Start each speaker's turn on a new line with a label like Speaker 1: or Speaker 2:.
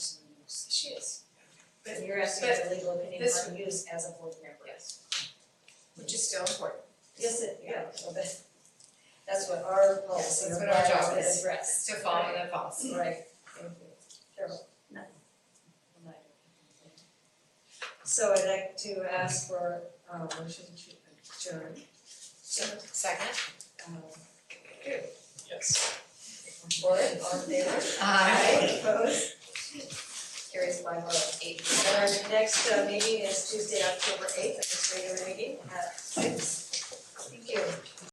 Speaker 1: But-
Speaker 2: And you're asking
Speaker 1: but
Speaker 2: for legal opinion
Speaker 1: this-
Speaker 2: on use as a board member.
Speaker 1: Yes. Which is still important.
Speaker 2: Yes, it, yeah, so that's, that's what our policy
Speaker 1: That's
Speaker 2: or
Speaker 1: what our job
Speaker 2: bylaw would
Speaker 1: is.
Speaker 2: address.
Speaker 1: To follow the policy.
Speaker 2: Right, thank you. Carol? So I'd like to ask for, uh, motion to adjourn,
Speaker 1: Second.
Speaker 2: um,
Speaker 3: Yes.
Speaker 2: board, all in favor?
Speaker 1: Aye.
Speaker 2: Opposed? Carries by vote of eight. And our next uh, meeting is Tuesday, October eighth, at this regular meeting at six.